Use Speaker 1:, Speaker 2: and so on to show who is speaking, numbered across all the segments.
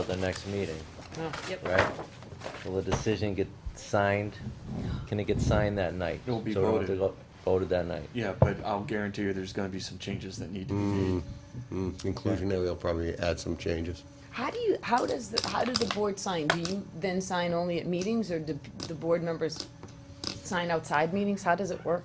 Speaker 1: at the next meeting,
Speaker 2: Yep.
Speaker 1: right? Will the decision get signed? Can it get signed that night?
Speaker 3: It'll be
Speaker 1: So we don't have to
Speaker 3: voted.
Speaker 1: go- Voted that night?
Speaker 3: Yeah, but I'll guarantee you there's gonna be some changes that need to be made.
Speaker 4: Mm, Inclusionary, they'll probably add some changes.
Speaker 2: How do you, how does, the how does the board sign? Do you then sign only at meetings, or do the board members sign outside meetings? How does it work?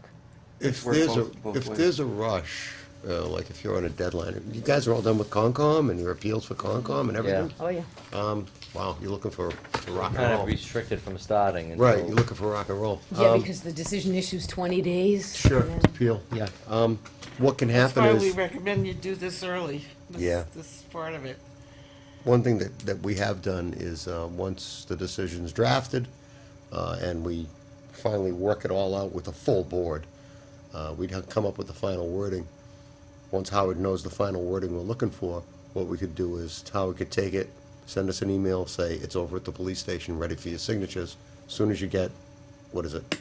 Speaker 4: If
Speaker 3: Work
Speaker 4: there's a,
Speaker 3: both- both
Speaker 4: if
Speaker 3: ways.
Speaker 4: there's a rush, uh, like if you're on a deadline, you guys are all done with Concom and your appeals for Concom and everything?
Speaker 2: Oh, yeah.
Speaker 4: Um, wow, you're looking for for rock
Speaker 1: Kind of
Speaker 4: and roll.
Speaker 1: restricted from starting until.
Speaker 4: Right, you're looking for rock and roll.
Speaker 2: Yeah,
Speaker 4: Um,
Speaker 2: because the decision issues twenty days.
Speaker 4: Sure,
Speaker 2: and then-
Speaker 4: appeal, yeah. Um, what can
Speaker 5: That's
Speaker 4: happen
Speaker 5: why we
Speaker 4: is,
Speaker 5: recommend you do this early. this-
Speaker 4: Yeah.
Speaker 5: This part of it.
Speaker 4: one thing that, that we have done is, uh, once the decision's drafted, uh, and we finally work it all out with the full board, uh, we'd have come up with the final wording. Once Howard knows the final wording we're looking for, what we could do is Howard could take it, send us an email, say, it's over at the police station, ready for your signatures. Soon as you get, what is it?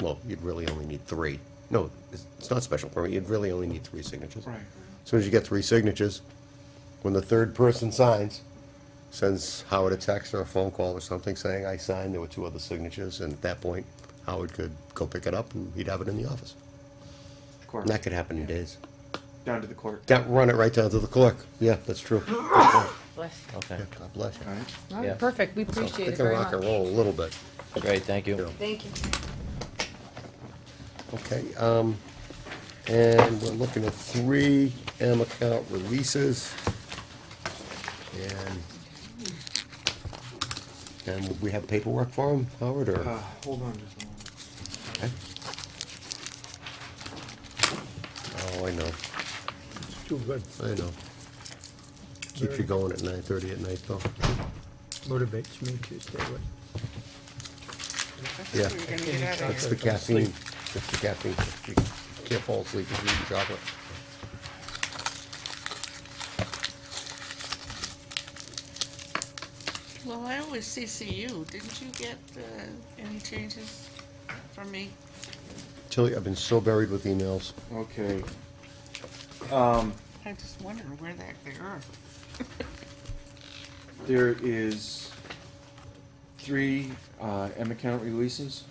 Speaker 4: Well, you'd really only need three. No, it's, it's not special permit, you'd really only need three signatures.
Speaker 3: Right.
Speaker 4: Soon as you get three signatures, when the third person signs, sends Howard a text or a phone call or something saying, I signed, there were two other signatures, and at that point, Howard could go pick it up and he'd have it in the office.
Speaker 3: Court,
Speaker 4: And that could happen in days.
Speaker 3: down to the court.
Speaker 4: Got, run it right down to the clerk. Yeah, that's true. Yeah,
Speaker 2: Bless.
Speaker 1: Okay,
Speaker 4: God bless you.
Speaker 3: All right.
Speaker 2: All right,
Speaker 1: Yeah.
Speaker 2: perfect. We
Speaker 4: So,
Speaker 2: appreciate
Speaker 4: they
Speaker 2: it
Speaker 4: can
Speaker 2: very
Speaker 4: rock and
Speaker 2: much.
Speaker 4: roll a little bit.
Speaker 1: great, thank
Speaker 4: Yeah.
Speaker 1: you.
Speaker 2: Thank you.
Speaker 4: Okay, um, and we're looking at three M account releases. And, and we have paperwork for them, Howard, or?
Speaker 3: Uh, hold on just a moment.
Speaker 4: Okay. Oh, I know,
Speaker 6: Too good.
Speaker 4: I know. Keeps you going at nine thirty at night, though.
Speaker 6: Motivates me to stay awake.
Speaker 4: Yeah,
Speaker 5: We're gonna get out of
Speaker 4: that's
Speaker 5: here.
Speaker 4: the caffeine, that's the caffeine. You can't fall asleep if you eat chocolate.
Speaker 5: Well, I always CCU. Didn't you get uh, any changes from me?
Speaker 4: Tilly, I've been so buried with emails.
Speaker 3: Okay. Um,
Speaker 5: I just wondered where that they are.
Speaker 3: There is three uh, M account releases.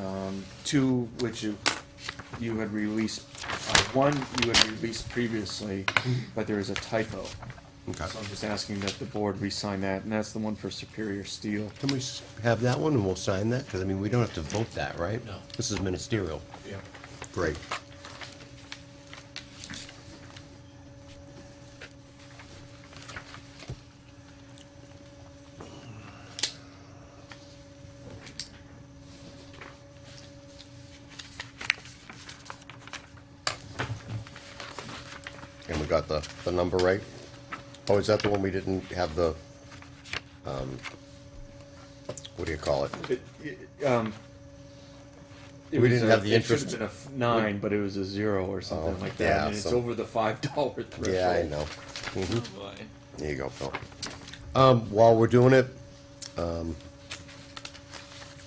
Speaker 3: Um, two which you, you had released, uh, one you had released previously, but there is a typo.
Speaker 4: Okay.
Speaker 3: So I'm just asking that the board re-sign that, and that's the one for Superior Steel.
Speaker 4: Can we s- have that one and we'll sign that? Because, I mean, we don't have to vote that, right? No. This is ministerial.
Speaker 3: Yeah.
Speaker 4: Great. And we got the, the number right? Oh, is that the one we didn't have the, um, what do you call it?
Speaker 3: It- it, um, it
Speaker 4: We
Speaker 3: was
Speaker 4: didn't
Speaker 3: a-
Speaker 4: have the
Speaker 3: It
Speaker 4: interest-
Speaker 3: should have been a f- nine, but it was a zero or something
Speaker 4: Oh,
Speaker 3: like that,
Speaker 4: yeah,
Speaker 3: and it's
Speaker 4: some-
Speaker 3: over the five dollar threshold.
Speaker 4: Yeah, I know.
Speaker 5: Oh, boy.
Speaker 4: There you go, Phil. Mm-hmm. Um, while we're doing it, um,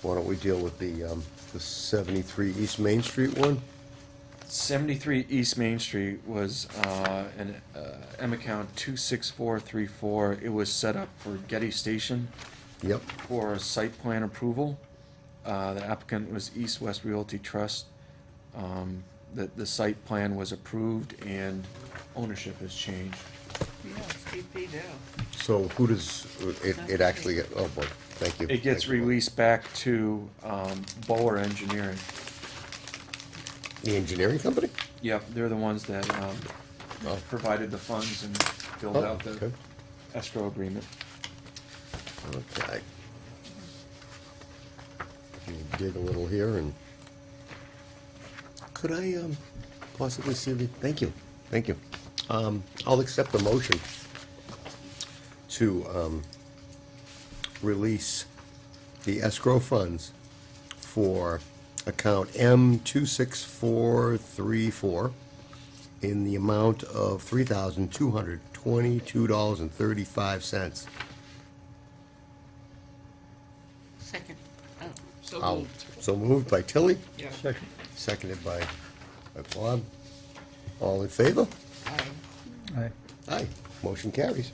Speaker 4: why don't we deal with the, um, the seventy-three East Main Street one?
Speaker 3: 73 East Main Street was uh, an uh, M account 26434. It was set up for Getty Station
Speaker 4: Yep,
Speaker 3: for a site plan approval. Uh, The applicant was East West Realty Trust. Um, The, the site plan was approved and ownership has changed.
Speaker 5: Yeah, it's DP now.
Speaker 4: so who does, it, it actually, get- oh boy, thank you.
Speaker 3: It gets
Speaker 4: Thank you.
Speaker 3: released back to um, Bower Engineering.
Speaker 4: The engineering company?
Speaker 3: Yep, they're the ones that um,
Speaker 4: Oh.
Speaker 3: provided the funds and filled
Speaker 4: Oh,
Speaker 3: out the
Speaker 4: okay.
Speaker 3: escrow agreement.
Speaker 4: Okay. We'll Dig a little here and, could I, um, possibly see the, thank you, thank you. Um, I'll accept the motion to, um, release the escrow funds for account M two six four three four in the amount of three thousand two hundred twenty-two dollars and thirty-five cents.
Speaker 5: Second. Oh, so
Speaker 4: I'll-
Speaker 5: moved.
Speaker 4: So moved by Tilly,
Speaker 5: Yeah.
Speaker 6: Second.
Speaker 4: seconded by by Bob. All in favor?
Speaker 5: Aye.
Speaker 6: Aye.
Speaker 4: Aye. Motion carries.